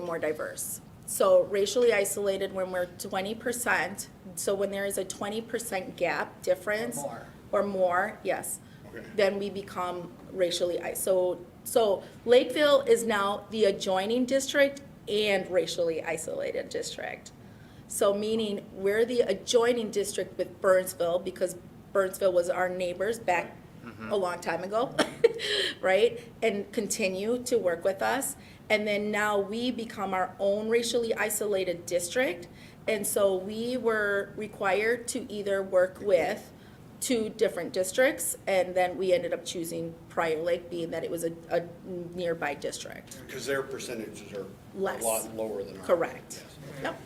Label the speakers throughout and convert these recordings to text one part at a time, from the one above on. Speaker 1: more diverse. So racially isolated when we're twenty percent, so when there is a twenty percent gap difference.
Speaker 2: more.
Speaker 1: Or more, yes,
Speaker 3: Okay.
Speaker 1: then we become racially i- so, so Lakeville is now the adjoining district and racially isolated district. So meaning we're the adjoining district with Burnsville because Burnsville was our neighbors back a long time ago, right? And continue to work with us. And then now we become our own racially isolated district. And so we were required to either work with two different districts and then we ended up choosing Prior Lake being that it was a, a nearby district.
Speaker 3: Because their percentages are
Speaker 1: Less.
Speaker 3: a lot lower than ours.
Speaker 1: Correct.
Speaker 3: Yes.
Speaker 1: Yep,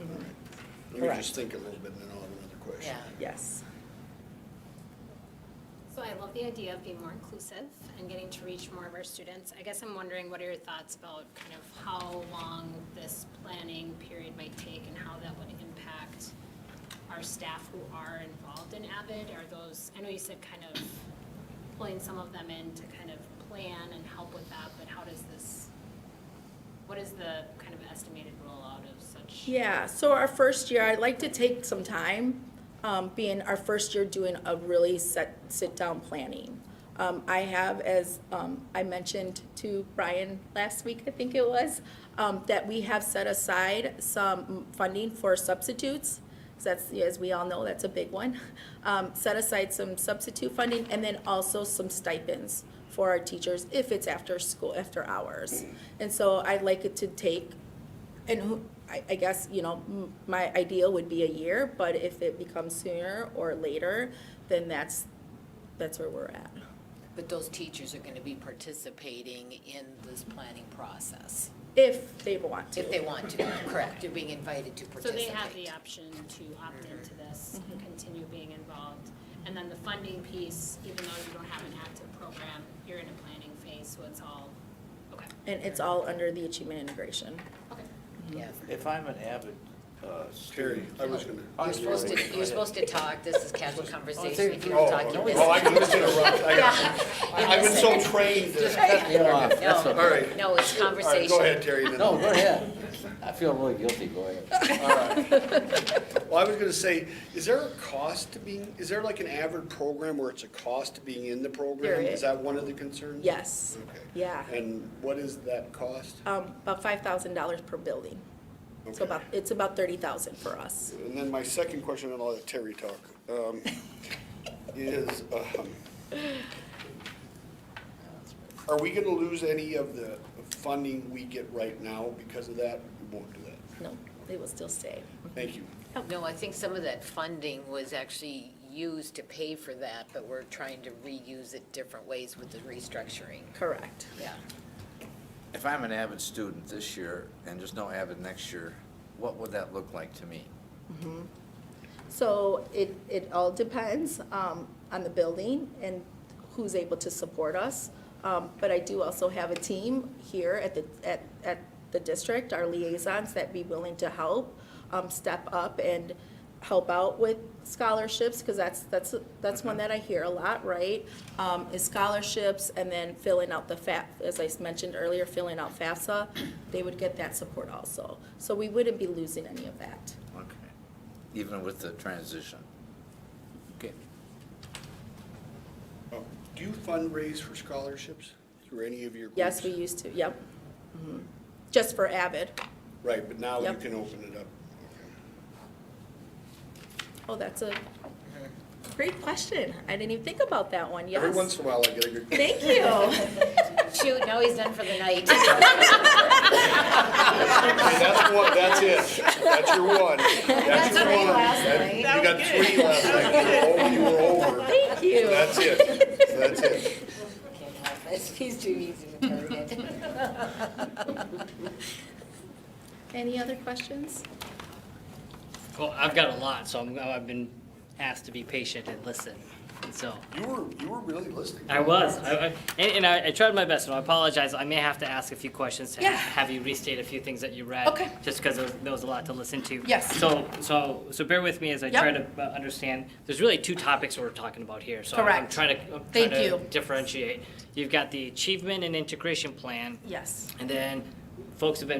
Speaker 3: All right. Let me
Speaker 1: Correct.
Speaker 3: just think a little bit and then I'll have another question.
Speaker 2: Yeah.
Speaker 1: yes.
Speaker 4: So I love the idea of being more inclusive and getting to reach more of our students. I guess I'm wondering, what are your thoughts about kind of how long this planning period might take and how that would impact our staff who are involved in Avid? Are those, I know you said kind of pulling some of them in to kind of plan and help with that, but how does this, what is the kind of estimated rollout of such?
Speaker 1: Yeah, so our first year, I'd like to take some time, um, being our first year doing a really set, sit-down planning. Um, I have, as, um, I mentioned to Brian last week, I think it was, um, that we have set aside some funding for substitutes. 'cause that's, as we all know, that's a big one. Um, set aside some substitute funding and then also some stipends for our teachers if it's after school, after hours. And so I'd like it to take and who, I, I guess, you know, m- my ideal would be a year, but if it becomes sooner or later, then that's, that's where we're at.
Speaker 2: But those teachers are going to be participating in this planning process,
Speaker 1: If they want to.
Speaker 2: if they want to, correct, they're being invited to
Speaker 4: So
Speaker 2: participate.
Speaker 4: they have the option to opt into this and continue being involved. And then the funding piece, even though you don't have an active program, you're in a planning phase, so it's all, okay,
Speaker 1: And it's all under the achievement integration.
Speaker 4: okay.
Speaker 2: Yes.
Speaker 5: If I'm an avid uh,
Speaker 3: Terry,
Speaker 5: student.
Speaker 3: I was gonna.
Speaker 2: You're supposed
Speaker 5: Go
Speaker 2: to,
Speaker 5: ahead.
Speaker 2: you're supposed to talk, this is casual conversation, if you
Speaker 3: Oh,
Speaker 2: were talking
Speaker 3: oh, I
Speaker 2: this.
Speaker 3: misinterrupted. I got- I- I've been so trained.
Speaker 2: Just
Speaker 3: to-
Speaker 2: cut me off,
Speaker 5: That's
Speaker 2: no,
Speaker 3: All right.
Speaker 2: no, it's
Speaker 3: All right, go
Speaker 2: conversation.
Speaker 3: ahead, Terry. then.
Speaker 5: No, go ahead. I feel really guilty, go ahead.
Speaker 3: All right. Well, I was gonna say, is there a cost to being, is there like an avid program where it's a cost to being in the program?
Speaker 1: There
Speaker 3: Is
Speaker 1: is.
Speaker 3: that one of the concerns?
Speaker 1: Yes,
Speaker 3: Okay.
Speaker 1: yeah.
Speaker 3: And what is that cost?
Speaker 1: Um, about five thousand dollars per building. So
Speaker 3: Okay.
Speaker 1: about, it's about thirty thousand for us.
Speaker 3: And then my second question, and I'll let Terry talk, um, is, um, are we gonna lose any of the funding we get right now because of that? We won't do that.
Speaker 1: No, they will still stay.
Speaker 3: Thank you.
Speaker 2: No, I think some of that funding was actually used to pay for that, but we're trying to reuse it different ways with the restructuring,
Speaker 1: Correct.
Speaker 2: yeah.
Speaker 6: If I'm an avid student this year and there's no avid next year, what would that look like to me?
Speaker 1: So it, it all depends um, on the building and who's able to support us. Um, But I do also have a team here at the, at, at the district, our liaisons that be willing to help, um, step up and help out with scholarships, because that's, that's, that's one that I hear a lot, right? Um, Is scholarships and then filling out the FAF, as I mentioned earlier, filling out FAFSA, they would get that support also. So we wouldn't be losing any of that.
Speaker 6: Okay. Even with the transition? Okay.
Speaker 3: Oh, Do you fundraise for scholarships through any of your groups?
Speaker 1: Yes, we used to, yep. Mhm. Just for Avid.
Speaker 3: Right, but now you
Speaker 1: Yep.
Speaker 3: can open it up.
Speaker 1: Oh, that's a great question. I didn't even think about that one,
Speaker 3: Every once
Speaker 1: yes.
Speaker 3: in a while I get a good.
Speaker 1: Thank you.
Speaker 2: Shoot, now he's done for the night.
Speaker 3: Okay, That's one, that's it. That's your one. That's your one. That- You got three last night. You were over, you were over.
Speaker 1: Thank you.
Speaker 3: That's it. That's it.
Speaker 2: Can't help it, he's too easy to target.
Speaker 1: Any other questions?
Speaker 7: Well, I've got a lot, so I'm, I've been asked to be patient and listen. And so
Speaker 3: You were, you were really listening.
Speaker 7: I was, I, I, and, and I, I tried my best, and I apologize. I may have to ask a few questions to
Speaker 1: Yeah.
Speaker 7: have you restate a few things that you read.
Speaker 1: Okay.
Speaker 7: Just because there was, there was a lot to listen to.
Speaker 1: Yes.
Speaker 7: So, so, so bear with me as I
Speaker 1: Yep.
Speaker 7: try to uh, understand. There's really two topics we're talking about here. So I'm- I'm
Speaker 1: Correct.
Speaker 7: trying to, I'm
Speaker 1: Thank
Speaker 7: trying to
Speaker 1: you.
Speaker 7: differentiate. You've got the achievement and integration plan,
Speaker 1: Yes.
Speaker 7: and then folks have been